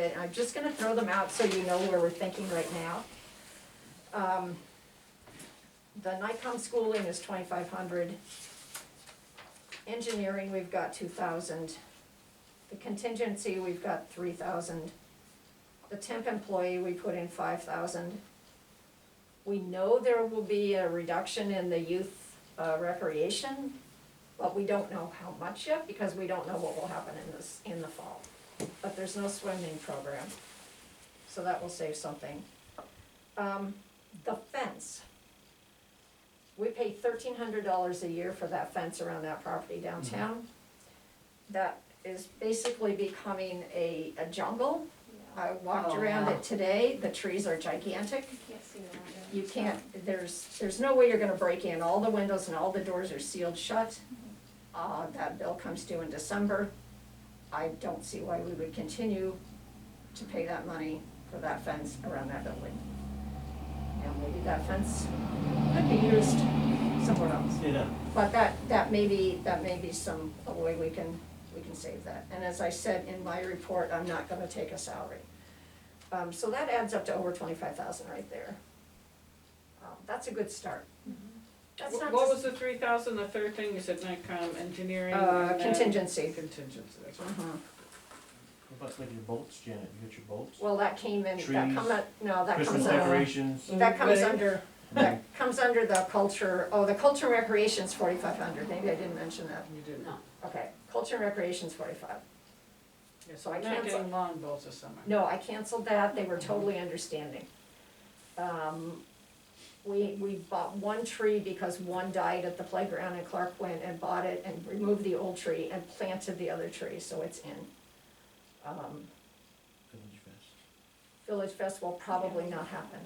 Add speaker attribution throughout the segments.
Speaker 1: But I'm just gonna throw them out so you know where we're thinking right now. Um, The NICOM schooling is twenty-five hundred. Engineering, we've got two thousand. The contingency, we've got three thousand. The temp employee, we put in five thousand. We know there will be a reduction in the youth uh, recreation, but we don't know how much yet because we don't know what will happen in this, in the fall. But there's no swimming program, so that will save something. Um, the fence. We pay thirteen hundred dollars a year for that fence around that property downtown. That is basically becoming a, a jungle. I walked
Speaker 2: Oh,
Speaker 1: around
Speaker 2: wow.
Speaker 1: it today, the trees are gigantic.
Speaker 3: Can't see that.
Speaker 1: You can't, there's, there's no way you're gonna break in, all the windows and all the doors are sealed shut. Uh, that bill comes due in December. I don't see why we would continue to pay that money for that fence around that building. And maybe that fence could be used somewhere else.
Speaker 4: Yeah,
Speaker 1: But that, that may be, that may be some, a way we can, we can save that. And as I said in my report, I'm not gonna take a salary. Um, so that adds up to over twenty-five thousand right there. Um, that's a good start. That's not
Speaker 2: What what was
Speaker 1: just,
Speaker 2: the three thousand, the third thing, you said NICOM engineering?
Speaker 1: uh,
Speaker 2: and then-
Speaker 1: contingency.
Speaker 2: Contingency, that's right.
Speaker 1: Uh-huh.
Speaker 4: what about like your bolts, Janet, you got your bolts?
Speaker 1: Well, that came in, that come,
Speaker 4: Trees,
Speaker 1: up- no, that
Speaker 4: Christmas
Speaker 1: comes under,
Speaker 4: decorations, Mm-hmm.
Speaker 1: that comes
Speaker 2: Wedding.
Speaker 1: under, that comes under the culture, oh, the culture and recreation's forty-five hundred, maybe I didn't mention that.
Speaker 2: You didn't.
Speaker 1: Okay, culture and recreation's forty-five.
Speaker 2: Yeah,
Speaker 1: So I
Speaker 2: we're Not
Speaker 1: canceled-
Speaker 2: getting lawn bowls this summer.
Speaker 1: No, I canceled that, they were totally understanding. Um, we, we bought one tree because one died at the playground and Clark went and bought it and removed the old tree and planted the other tree, so it's in. Um,
Speaker 4: Village Fest.
Speaker 1: Village Fest will probably not happen.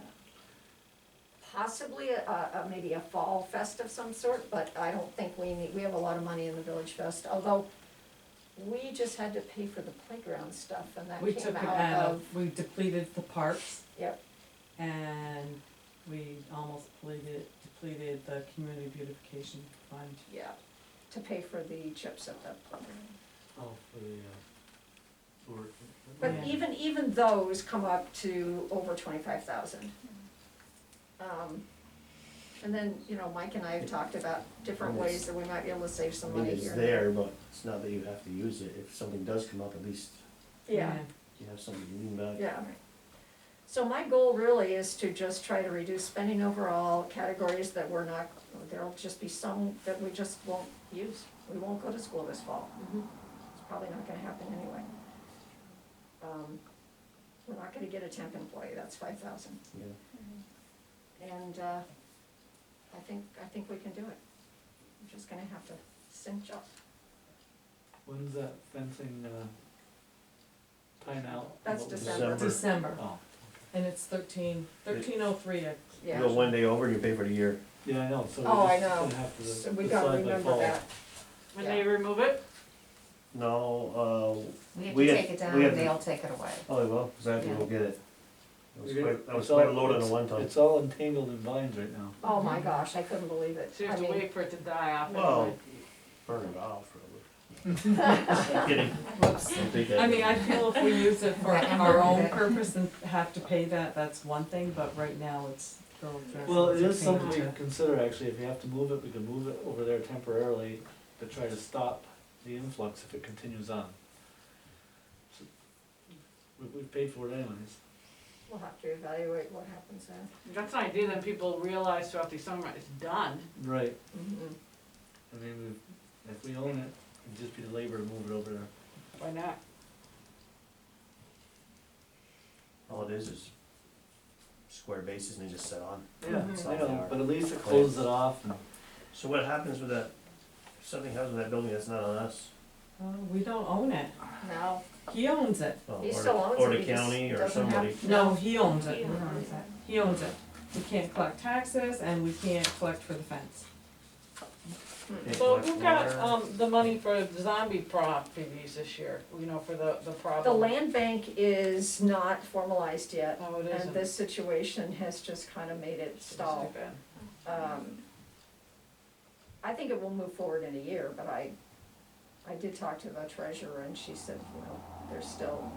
Speaker 1: Possibly a, a, maybe a fall fest of some sort, but I don't think we need, we have a lot of money in the Village Fest, although we just had to pay for the playground stuff and that
Speaker 5: We
Speaker 1: came
Speaker 5: took it
Speaker 1: out
Speaker 5: out
Speaker 1: of,
Speaker 5: of, we depleted the parks.
Speaker 1: Yep.
Speaker 5: And we almost depleted, depleted the community beautification fund.
Speaker 1: yeah, to pay for the chips at that playground.
Speaker 4: Oh, for the, uh, for.
Speaker 1: But
Speaker 5: Yeah.
Speaker 1: even, even those come up to over twenty-five thousand. Um, and then, you know, Mike and I have talked about different
Speaker 4: Almost.
Speaker 1: ways that we might be able to save
Speaker 4: I
Speaker 1: some
Speaker 4: mean,
Speaker 1: money
Speaker 4: it's
Speaker 1: here.
Speaker 4: there, but it's not that you have to use it, if something does come up, at least
Speaker 1: Yeah,
Speaker 4: you have something to lean back.
Speaker 1: yeah. So my goal really is to just try to reduce spending overall, categories that we're not, there'll just be some that we just won't use. We won't go to school this fall.
Speaker 2: Mhm.
Speaker 1: It's probably not gonna happen anyway. Um, we're not gonna get a temp employee, that's five thousand.
Speaker 4: Yeah.
Speaker 1: And uh, I think, I think we can do it. We're just gonna have to cinch up.
Speaker 6: When's that fencing, uh, time out?
Speaker 1: That's
Speaker 6: What was it?
Speaker 1: December.
Speaker 4: December.
Speaker 5: December,
Speaker 6: Oh,
Speaker 5: and it's thirteen, thirteen oh three,
Speaker 4: You
Speaker 1: Yeah.
Speaker 4: go one day over and you pay for the year.
Speaker 6: yeah, I know, so we
Speaker 1: Oh, I
Speaker 6: just
Speaker 1: know.
Speaker 6: gonna have to
Speaker 1: So
Speaker 6: decide by fall.
Speaker 1: we gotta remember that.
Speaker 2: When they remove it,
Speaker 4: No, We
Speaker 3: We have
Speaker 4: have-
Speaker 3: to take it down,
Speaker 4: we have-
Speaker 3: they'll take it away.
Speaker 4: uh, oh, well, cause I have to go get it. That was
Speaker 6: You're gonna-
Speaker 4: quite, that was
Speaker 6: it's all-
Speaker 4: quite a load on the
Speaker 6: it's-
Speaker 4: one time.
Speaker 6: It's all entangled in vines right now.
Speaker 1: Oh my gosh, I couldn't believe it.
Speaker 2: so you
Speaker 1: I
Speaker 2: have to
Speaker 1: mean,
Speaker 2: wait for it to die off.
Speaker 4: Well,
Speaker 2: anyway.
Speaker 4: burn it off, really. Kidding. Don't think that.
Speaker 5: I mean, I feel if we use it for
Speaker 3: Right, I'm
Speaker 5: our
Speaker 3: not
Speaker 5: own
Speaker 3: good.
Speaker 5: purpose and have to pay that, that's one thing, but right now it's still.
Speaker 6: Well, it is something we can
Speaker 5: to-
Speaker 6: consider, actually, if you have to move it, we can move it over there temporarily to try to stop the influx if it continues on. So, We, we paid for it anyways.
Speaker 1: We'll have to evaluate what happens then.
Speaker 2: That's an idea, then people realize throughout the summer, it's done.
Speaker 6: Right.
Speaker 2: Mm-hmm.
Speaker 6: I mean, we, if we own it, it'd just be the labor to move it over there.
Speaker 2: Why not?
Speaker 4: All it is is square bases and they just set on.
Speaker 6: Yeah,
Speaker 1: Mhm.
Speaker 6: I know, but at least it closes it off and
Speaker 4: So what happens with that, if something happens with that building that's not on us?
Speaker 5: Uh, we don't own it,
Speaker 1: Now,
Speaker 5: he owns it,
Speaker 4: Well,
Speaker 1: He
Speaker 4: or the-
Speaker 1: still owns
Speaker 4: Or
Speaker 1: it,
Speaker 4: the
Speaker 1: he just
Speaker 4: county or
Speaker 1: doesn't have-
Speaker 4: somebody.
Speaker 5: no, he owns it.
Speaker 3: Who owns that?
Speaker 5: He owns it. We can't collect taxes and we can't collect for the fence.
Speaker 4: They
Speaker 2: So
Speaker 4: collect
Speaker 2: who got,
Speaker 4: water.
Speaker 2: um, the money for zombie properties this year, you know, for the, the problem?
Speaker 1: the land bank is not formalized yet.
Speaker 2: Oh, it
Speaker 1: And
Speaker 2: isn't.
Speaker 1: this situation has just kind of made it
Speaker 2: It's
Speaker 1: stall.
Speaker 2: too bad.
Speaker 1: Um, I think it will move forward in a year, but I, I did talk to the treasurer and she said, you know, they're still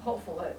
Speaker 1: hopeful that